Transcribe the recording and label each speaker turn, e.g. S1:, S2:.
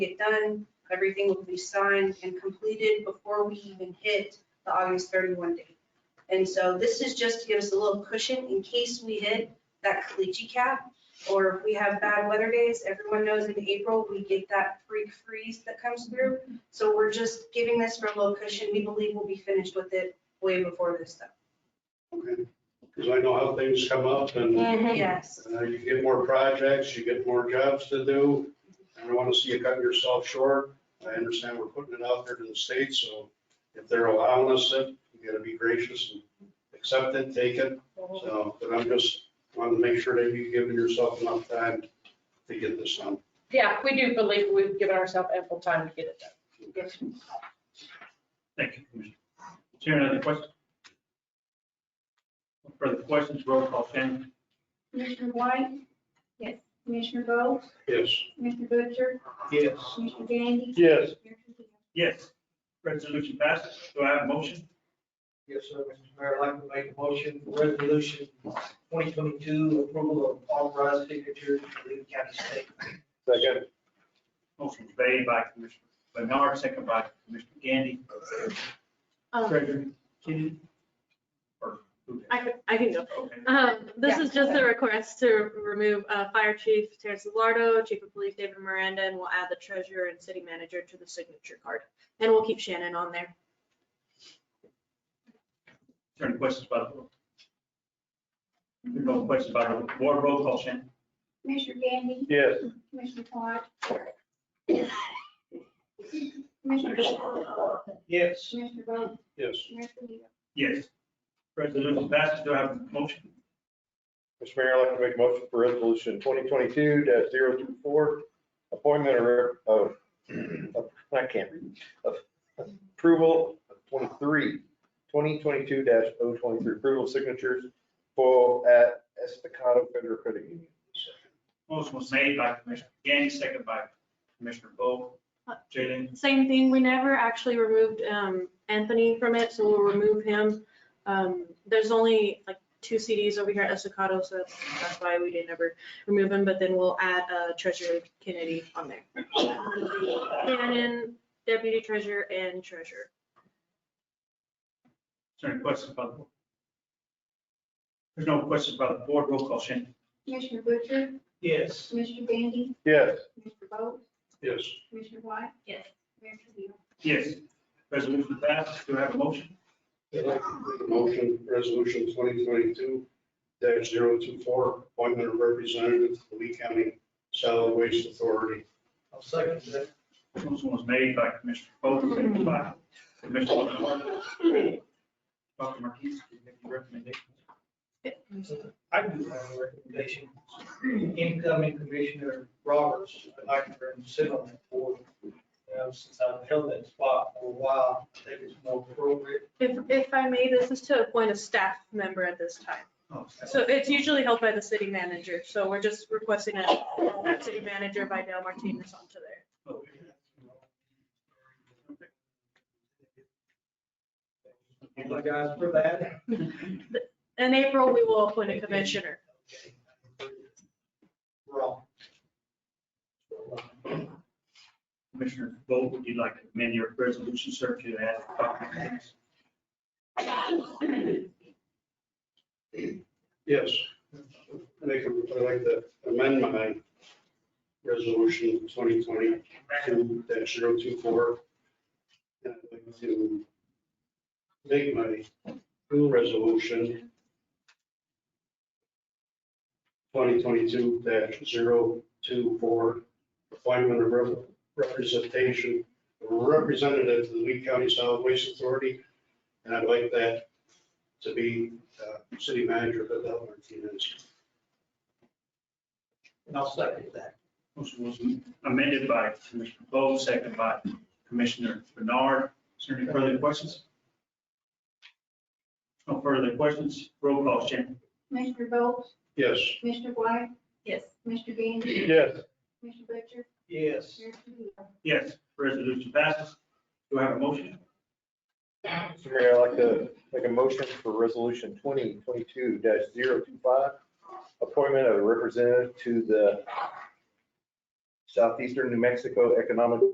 S1: get done. Everything will be signed and completed before we even hit the August 31 date. And so this is just to give us a little cushion in case we hit that caliche cap or if we have bad weather days. Everyone knows in April, we get that freak freeze that comes through. So we're just giving this for a little cushion. We believe we'll be finished with it way before this though.
S2: Because I know how things come up and
S1: Yes.
S2: uh, you get more projects, you get more jobs to do. I don't want to see you cut yourself short. I understand we're putting it out there to the state, so if they're allowing us it, you gotta be gracious and accept it, take it. So, but I'm just wanting to make sure that you've given yourself enough time to get this done.
S3: Yeah, we do believe we've given ourselves ample time to get it done.
S4: Thank you, Commissioner. Sharon, other questions? No Further questions, roll call, Shannon.
S5: Commissioner White? Yes. Commissioner Bowe?
S2: Yes.
S5: Commissioner Butcher?
S4: Yes.
S5: Commissioner Gandy?
S2: Yes.
S4: Yes, resolution passes. Do I have a motion?
S6: Yes, sir, Mr. Mayor, I'd like to make a motion for resolution twenty twenty-two, approval of authorized signatures for Lee County State.
S2: Second.
S4: Motion made by Commissioner Bernard, second by Commissioner Gandy.
S7: Um,
S4: Treasurer Kennedy? Or who?
S7: I can, I can go.
S4: Okay.
S7: Um, this is just a request to remove, uh, Fire Chief Terrence Lardo, Chief of Police David Miranda, and we'll add the treasurer and city manager to the signature card. And we'll keep Shannon on there.
S4: Is there any questions by the board? No questions by the board, roll call, Shannon.
S5: Commissioner Gandy?
S2: Yes.
S5: Commissioner White? Commissioner Butcher?
S6: Yes,
S5: Commissioner Bowe?
S2: Yes.
S5: Commissioner Gandy?
S4: Yes. Resolution passes. Do I have a motion?
S8: Mr. Mayor, I'd like to make a motion for resolution twenty twenty-two 24 appointment or, of, of- I can't read, of approval of 23 2022 23 oh approval signatures for at Estacado Federal Credit Union.
S4: Motion was made by Commissioner Gandy, second by Commissioner Bo. Jalen,
S7: Same thing, we never actually removed, um, Anthony from it, so we'll remove him. Um, there's only like two CDs over here at Estacado, so that's why we didn't ever remove him, but then we'll add, uh, treasurer Kennedy on there. Shannon, deputy treasurer and treasurer.
S4: Is there any questions by the board? There's no questions by the board. Roll call, Shannon.
S5: Commissioner Butcher?
S6: yes,
S5: Commissioner Gandy?
S8: Yes,
S5: Commissioner Bowe?
S2: Yes.
S5: Commissioner White?
S3: Yes.
S5: Commissioner Gandy?
S4: Yes. Resolution passes. Do I have a motion?
S2: I'd like to make a Motion, resolution twenty twenty-two 24 appointment of representative to the Lee County Solid Waste Authority.
S6: I'll second that.
S4: Motion was made by Commissioner Bo, seconded by Commissioner Lombardo. Dr. Marquis, do you have any recommendations?
S6: I do have a recommendation. Incoming Commissioner Roberts, I'd like to sit on that board. Now, since I've held that spot for a while, I think it's more appropriate.
S7: If, if I may, this is to appoint a staff member at this time.
S4: Oh, sorry.
S7: So it's usually held by the city manager, so we're just requesting a, a city manager by Dale Martinez onto there.
S4: Okay.
S6: Thank you guys for that.
S7: In April, we will appoint a commissioner.
S6: Wrong.
S4: Commissioner Bo, would you like to amend your resolution, sir, to add Dr. Martinez?
S2: Yes. I think I'd like to amend my resolution twenty twenty-two 24 And I'd like to make my new resolution twenty twenty-two 24 appointment of rep- representation, representative to the Lee County Solid Waste Authority. And I'd like that to be uh, city manager Adele Martinez.
S6: And I'll second that.
S4: Motion was amended by Commissioner Bo, seconded by Commissioner Bernard. Is there any further questions? No further questions. Roll call, Shannon.
S5: Commissioner Bowe?
S2: Yes.
S5: Commissioner White?
S3: Yes.
S5: Commissioner Gandy?
S8: yes.
S5: Commissioner Butcher?
S6: Yes.
S5: Commissioner Gandy?
S4: Yes, resolution passes. Do I have a motion?
S8: Mr. Mayor, I'd like to make a motion for resolution twenty twenty-two 25 appointment of a representative to the
S6: Southeastern New Mexico Economic